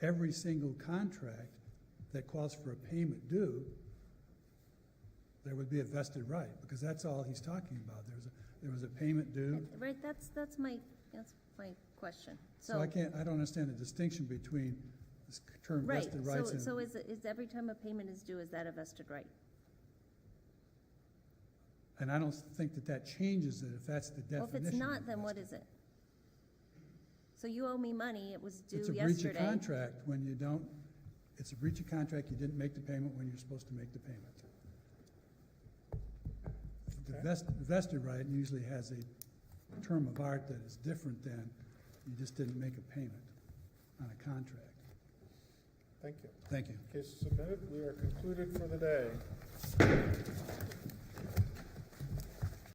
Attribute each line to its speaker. Speaker 1: every single contract that calls for a payment due, there would be a vested right, because that's all he's talking about. There's, a- there was a payment due.
Speaker 2: Right, that's, that's my, that's my question.
Speaker 1: So I
Speaker 2: So,
Speaker 1: can't, I don't understand the distinction between this term
Speaker 2: right,
Speaker 1: vested
Speaker 2: so,
Speaker 1: rights and.
Speaker 2: so is, is every time a payment is due, is that a vested right?
Speaker 1: And I don't think that that changes it if that's the
Speaker 2: Well,
Speaker 1: definition.
Speaker 2: if it's
Speaker 1: of
Speaker 2: not, then what
Speaker 1: vested.
Speaker 2: is it? So you owe me money, it was
Speaker 1: It's
Speaker 2: due
Speaker 1: a breach of
Speaker 2: yesterday.
Speaker 1: contract when you don't, it's a breach of contract, you didn't make the payment when you're supposed to make the payment. The vest- vested right usually has a term of art that is different than you just didn't make a payment on a contract.
Speaker 3: Thank you.
Speaker 1: Thank you.
Speaker 3: Case is submitted. We are concluded for the day.